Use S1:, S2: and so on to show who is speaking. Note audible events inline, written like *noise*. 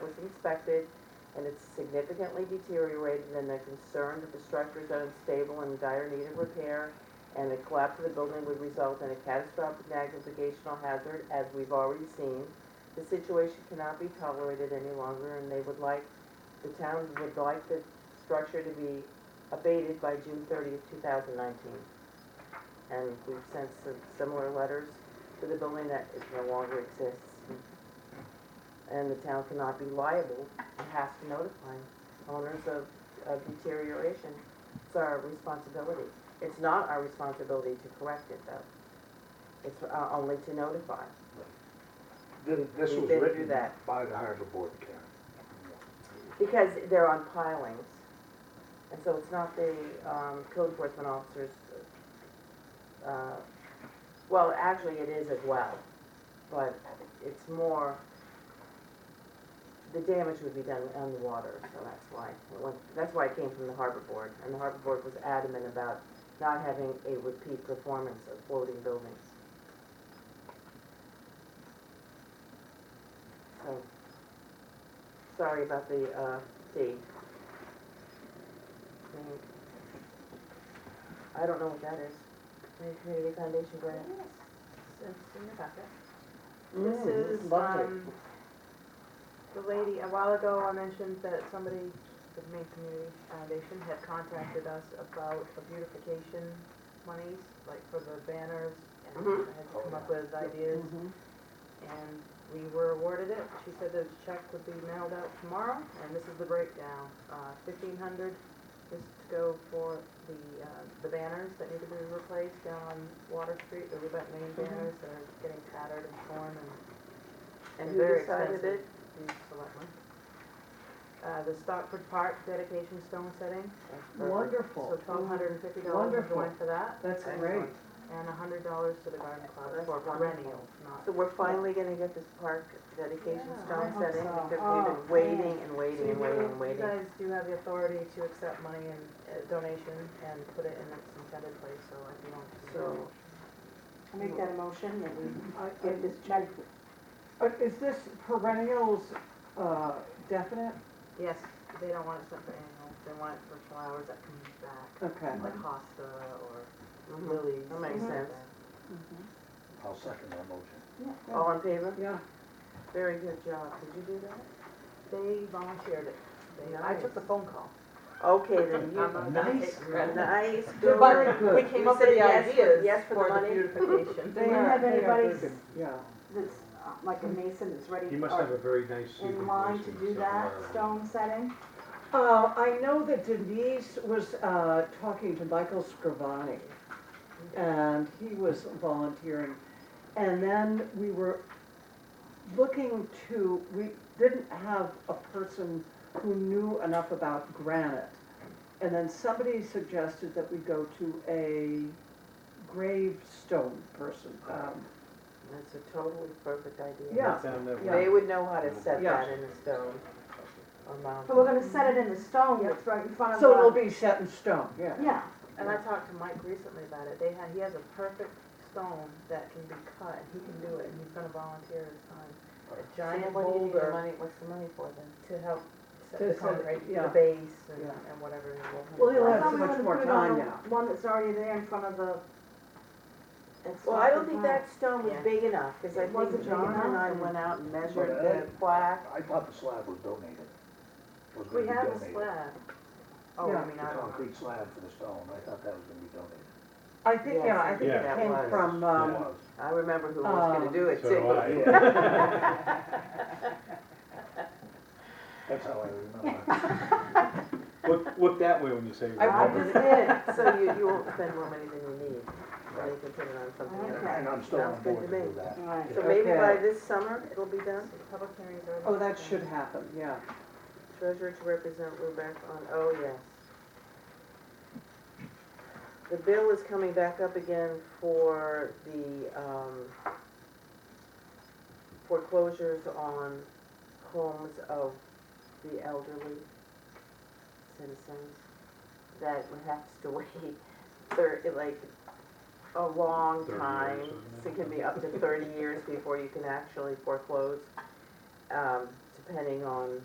S1: inspected and it's significantly deteriorated and they're concerned that the structure is unstable and in dire need of repair and the collapse of the building would result in a catastrophic navigational hazard, as we've already seen. The situation cannot be tolerated any longer and they would like, the town would like the structure to be abated by June thirtieth, two thousand nineteen. And we've sent some similar letters to the building that it no longer exists. And the town cannot be liable, it has to notify owners of, of deterioration. It's our responsibility. It's not our responsibility to correct it though. It's uh, only to notify.
S2: Th- This
S1: We
S2: was
S1: didn't do
S2: written
S1: that.
S2: by the harbor board, Karen.
S1: Because they're on pilings, and so it's not the um, code enforcement officers, uh, well, actually it is as well, but it's more, the damage would be done on the water, so that's why, it went- that's why it came from the harbor board, and the harbor board was adamant about not having a repeat performance of floating buildings. So, Sorry about the, uh, fee. Mm. I don't know what that is. Maine Community Foundation grant?
S3: It's in your packet.
S1: Mm,
S3: This is,
S1: lovely.
S3: um, the lady, a while ago, I mentioned that somebody, the Maine Community Foundation, had contacted us about the beautification monies, like for the banners, and
S1: Mhm.
S3: had come up with ideas,
S1: Mhm.
S3: and we were awarded it. She said that the check would be mailed out tomorrow, and this is the breakdown. Uh, fifteen hundred is to go for the, uh, the banners that need to be replaced down on Water Street, the Lubec Main banners that are getting tattered and torn and, and
S1: Who
S3: very
S1: decided
S3: expensive. These selectmen. Uh, the Stockford Park dedication stone setting,
S1: That's perfect.
S3: so
S4: Wonderful.
S3: twelve hundred and fifty dollars is
S4: Wonderful.
S3: going for that,
S4: That's
S1: Excellent.
S4: great.
S3: and a hundred dollars to the garden club
S1: That's
S3: for
S1: wonderful.
S3: perennials, not.
S1: So we're finally gonna get this park dedication
S3: Yeah,
S4: I
S1: stone
S4: hope
S1: setting,
S4: so.
S1: because we've been
S4: Oh,
S1: waiting and
S3: So
S1: waiting
S3: you
S1: and waiting
S3: do-
S1: and
S3: you
S1: waiting.
S3: guys do have the authority to accept money and uh, donation and put it in its intended place, so if you want to.
S1: So,
S5: I Make that a motion that we
S4: I-
S5: get this check.
S4: Uh, Is this perennials uh, definite?
S3: Yes, they don't want it sent for annual, they want it for flowers that come back,
S4: Okay.
S3: like hosta or
S1: mhm.
S3: lilies.
S1: That makes
S3: or
S1: sense.
S3: something.
S2: I'll second that motion.
S5: Oh.
S1: all in favor?
S4: Yeah,
S1: Very good job. Did you do that?
S3: They volunteered it. They, I took the
S1: Nice.
S3: phone call.
S1: Okay, then
S3: I'm
S1: you,
S3: not gonna take
S2: Nice.
S3: credit.
S1: Uh-huh. nice,
S4: They're
S1: good.
S4: very good.
S3: We came
S1: You
S3: up with
S1: said
S3: the
S1: yes for-
S3: ideas
S1: yes for the
S3: for the
S1: money? *laughs*
S3: beautification.
S4: They
S5: Do you
S4: are-
S5: have
S4: they are
S5: anybody's-
S4: good. Yeah.
S5: That's uh, like a mason that's ready.
S6: He must have a very nice.
S5: or
S6: Hebrew
S5: In line
S6: voice
S5: to
S6: and
S5: do
S6: stuff
S5: that
S6: like
S5: stone setting.
S4: Uh, I know that Denise was uh, talking to Michael Scrivani, and he was volunteering. And then we were looking to, we didn't have a person who knew enough about granite. And then somebody suggested that we go to a gravestone person. um,
S1: That's a totally perfect idea.
S4: Yeah.
S6: Down that
S4: Yeah.
S1: They
S6: way.
S1: would know how to set
S4: Yeah.
S1: that in the stone or
S5: But we're
S1: mountain.
S5: gonna set it in the stone that's right in front of the.
S4: So it'll be set in stone, yeah.
S5: Yeah,
S3: And I talked to Mike recently about it, they had, he has a perfect stone that can be cut, and he can do it, and he's gonna volunteer his time. A giant
S1: So what do you need the
S3: boulder
S1: money- What's the money for then?
S3: to help set
S4: To
S3: the
S4: set it,
S3: concrete,
S4: yeah.
S3: the base and,
S4: Yeah.
S3: and whatever. it will-
S4: Well, he'll
S5: I
S4: have
S5: thought
S4: so
S5: we
S4: much
S5: were gonna
S4: more
S5: put it on
S4: time
S5: the
S4: now.
S5: one that's already there in front of the. it's
S1: Well, I
S5: not
S1: don't
S5: the
S1: think
S5: ground.
S1: that stone was
S3: Yeah.
S1: big enough, because I
S5: It
S1: think
S5: wasn't
S1: John
S5: big
S1: and I
S5: enough.
S1: went out and measured
S2: But
S1: the
S2: that-
S1: plaque.
S2: I thought the slab was donated. Was gonna
S3: We
S2: be
S3: have a
S2: donated.
S3: slab. Oh, I
S4: Yeah.
S3: mean,
S2: The
S3: I don't know.
S2: concrete slab for the stone, I thought that was gonna be donated.
S4: I think, yeah, I think
S6: Yeah.
S4: it
S1: that
S4: came
S1: was.
S4: from,
S2: It
S4: um,
S2: was.
S1: I remember who was gonna
S4: Um,
S1: do it
S6: Oh. So do
S1: too.
S6: I.
S2: That's how
S1: *laughs*
S2: I remember.
S6: Look, look that way when you say.
S4: I- I
S1: I just
S6: remote.
S1: did, so you, you won't spend more money than you need, and you can put it on something
S2: And
S1: else.
S5: Okay.
S2: and I'm still on
S1: Sounds good
S2: board
S1: to
S2: to do
S1: me.
S2: that.
S5: All right.
S1: So maybe by
S4: Okay.
S1: this summer, it'll be done?
S3: Public hearings are.
S4: oh, that should happen, yeah.
S1: Treasurer to represent Lubec on, oh, yes. The bill is coming back up again for the um, foreclosures on homes of the elderly citizens that would have to wait, *laughs* thir like, a long
S6: 30 years,
S1: time.
S6: isn't
S1: So It can be up to thirty years before you can actually foreclose, um, depending on